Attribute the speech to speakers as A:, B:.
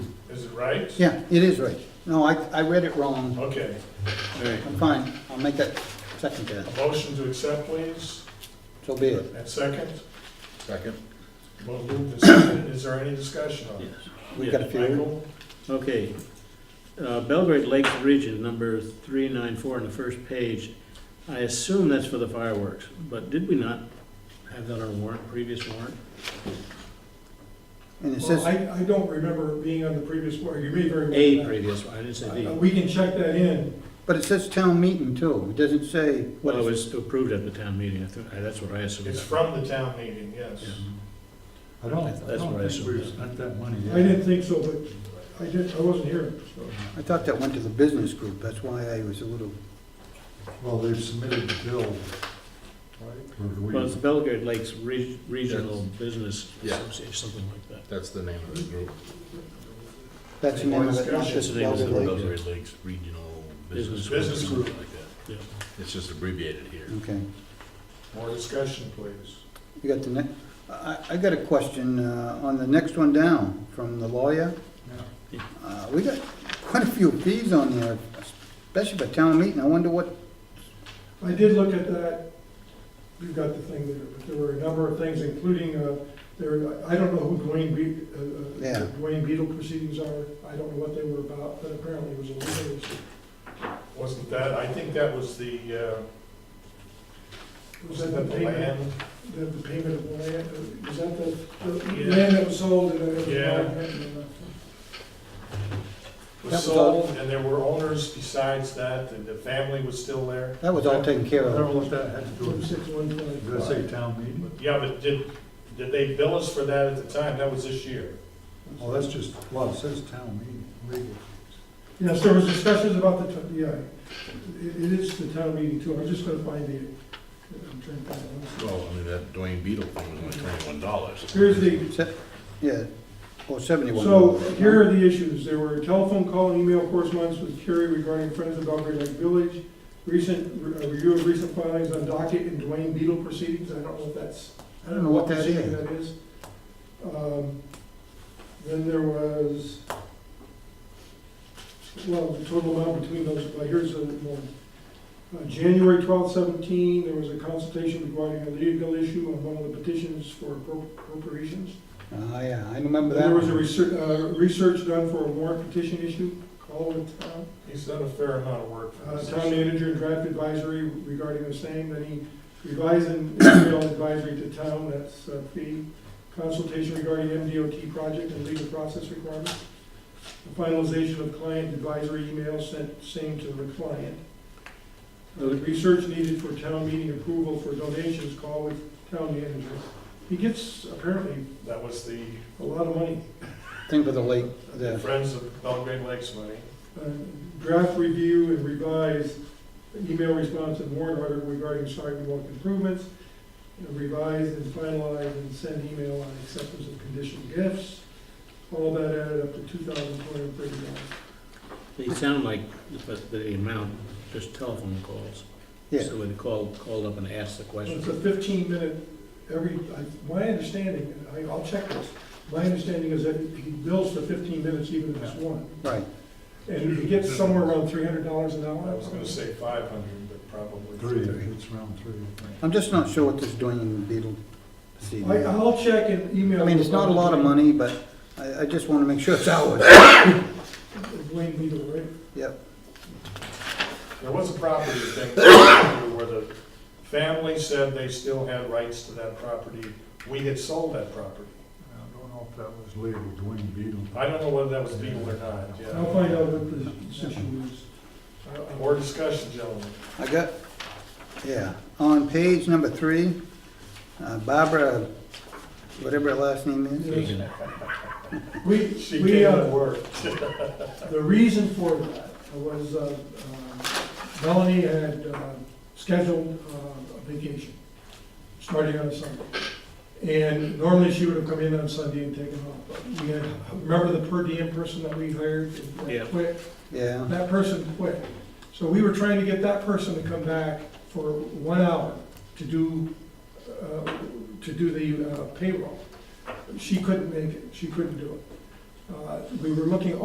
A: it right?
B: Yeah, it is right. No, I, I read it wrong.
A: Okay,
B: I'm fine. I'll make that second there.
A: a motion to accept, please,
B: So be it.
A: and second,
C: Second.
A: well, moved and seconded, is there any discussion on it?
B: We got a few.
A: Michael,
D: Okay. Uh, Belgrade Lakes Ridge is number three nine four on the first page. I assume that's for the fireworks, but did we not have that on a warrant, previous warrant?
B: And it
E: Well,
B: says,
E: I, I don't remember it being on the previous board, you may very well.
D: A previous, one. I didn't say
E: Uh,
D: the.
E: We can check that in.
B: but it says town meeting too. It doesn't say what
D: Well, it
B: it's.
D: was approved at the town meeting, I thought, I- that's what I assumed.
A: It's from the town meeting, yes.
D: Yeah.
F: I don't,
D: That's-
F: I
D: that's what I
F: don't think we've
D: assumed.
F: spent that money
E: I
F: yet.
E: didn't think so, but I did, I wasn't here, so.
B: I thought that went to the business group. That's why I was a little,
F: Well, they've submitted the bill, right? Or we-
D: Well, it's Belgrade Lakes Re- Regional
C: Yes.
D: Business
C: Yeah.
D: Association, something like that.
C: That's the name of the group.
B: that's the name of it, not
A: That's
D: That's
B: just
D: the name of the
B: Belgrade
D: group.
B: Lake.
C: Belgrade Lakes Regional
D: Business
C: Business.
D: group.
C: Business group. like
D: Yeah.
C: that. It's just abbreviated here.
B: Okay.
A: More discussion, please.
B: You got the next, I, I got a question, uh, on the next one down from the lawyer.
D: Yeah.
B: Uh, we got quite a few fees on there, especially for town meeting. I wonder what,
E: I did look at that, you've got the thing there, but there were a number of things, including, uh, there, I don't know who Dwayne Be, uh,
B: Yeah.
E: uh, Dwayne Beetle proceedings are, I don't know what they were about, but apparently it was a legal issue.
A: Wasn't that, I think that was the, uh,
E: Was
A: was that the land?
E: The, the payment of the land, uh, was that the, the
A: Yeah.
E: land that was sold and it was.
A: Yeah.
B: That
A: Was
B: was all-
A: sold, and there were owners besides that, and the family was still there?
B: that was all taken care
F: Whatever
B: of.
F: what that had to do
E: Two oh
F: with,
E: six one twenty.
F: did I say town meeting?
A: Yeah, but did, did they bill us for that at the time? That was this year.
F: Well, Oh, that's just, well, it says town meeting, legal.
E: Yes, there was discussions about the, t- yeah, it it is the town meeting too, I'm just gonna find the, I'm trying to find it.
C: Well, I mean, that Dwayne Beetle thing was only twenty-one dollars.
E: Here's the,
B: Se- Yeah, or seventy-one.
E: so here are the issues, there were telephone call and email correspondence with Kerry regarding Friends of Belgrade Lake Village, recent, re- uh, review of recent filings on docket and Dwayne Beetle proceedings, I don't know if that's, I don't know what
B: that
E: proceeding
B: is.
E: that is. Um, Then there was, well, the total amount between those, well, here's the one. Uh, January twelfth, seventeen, there was a consultation regarding a legal issue on one of the petitions for appro- appropriations.
B: Ah, yeah, I remember that.
E: There was a
B: one.
E: research, uh, research done for a warrant petition issue, call uh, with town,
A: He's done a fair amount of work for
E: uh,
A: us.
E: town manager and draft advisory regarding the same, then he revised an email advisory to town, that's uh, fee, consultation regarding MDOT project and legal process requirements, the finalization of client advisory email sent same to the client. Uh, The research needed for town meeting approval for donations, call with town manager. He gets apparently
A: That was the
E: a lot of money.
B: Thing for the lake, the.
A: Friends of Belgrade Lakes money.
E: uh, draft review and revise email response and warrant article regarding sidewalk improvements, and revise and finalize and send email on acceptance of conditional gifts, all that added up to two thousand two hundred and thirty dollars.
D: They sound like, but the amount, just telephone calls.
B: Yeah.
D: So they called, called up and asked the
E: It's
D: question.
E: a fifteen minute, every, I- my understanding, and I- I'll check this, my understanding is that he bills for fifteen minutes even if it's one,
B: Right,
E: and he gets somewhere around three hundred dollars an hour.
A: I was gonna say five hundred, but probably.
F: Three, it's round three, I think.
B: I'm just not sure what this Dwayne Beetle
E: I-
B: proceeding. I
E: I'll check and email.
B: mean, it's not a lot of money, but I, I just wanna make sure it's ours.
E: Wayne Beadle, right?
B: Yep,
A: There was a property thing where the family said they still had rights to that property. We had sold that property.
F: I don't know if that was legal, Dwayne Beetle.
A: I don't know whether that was legal or not,
E: I'll
A: yeah.
E: find out what the issue is.
A: More discussion, gentlemen.
B: I got, yeah, on page number three, uh, Barbara, whatever her last name is.
D: Reagan.
E: We,
A: She
E: we,
A: came to
E: uh,
A: work.
E: the reason for that was, uh, uh, Melanie had uh, scheduled uh, a vacation, starting on Sunday. And normally she would have come in on Sunday and taken off, but we had, remember the per diem person that we hired? that
D: Yeah.
E: Quit,
B: Yeah,
E: that person quit. So we were trying to get that person to come back for one hour to do, uh, to do the uh, payroll. She couldn't make it, she couldn't do it. Uh, We were looking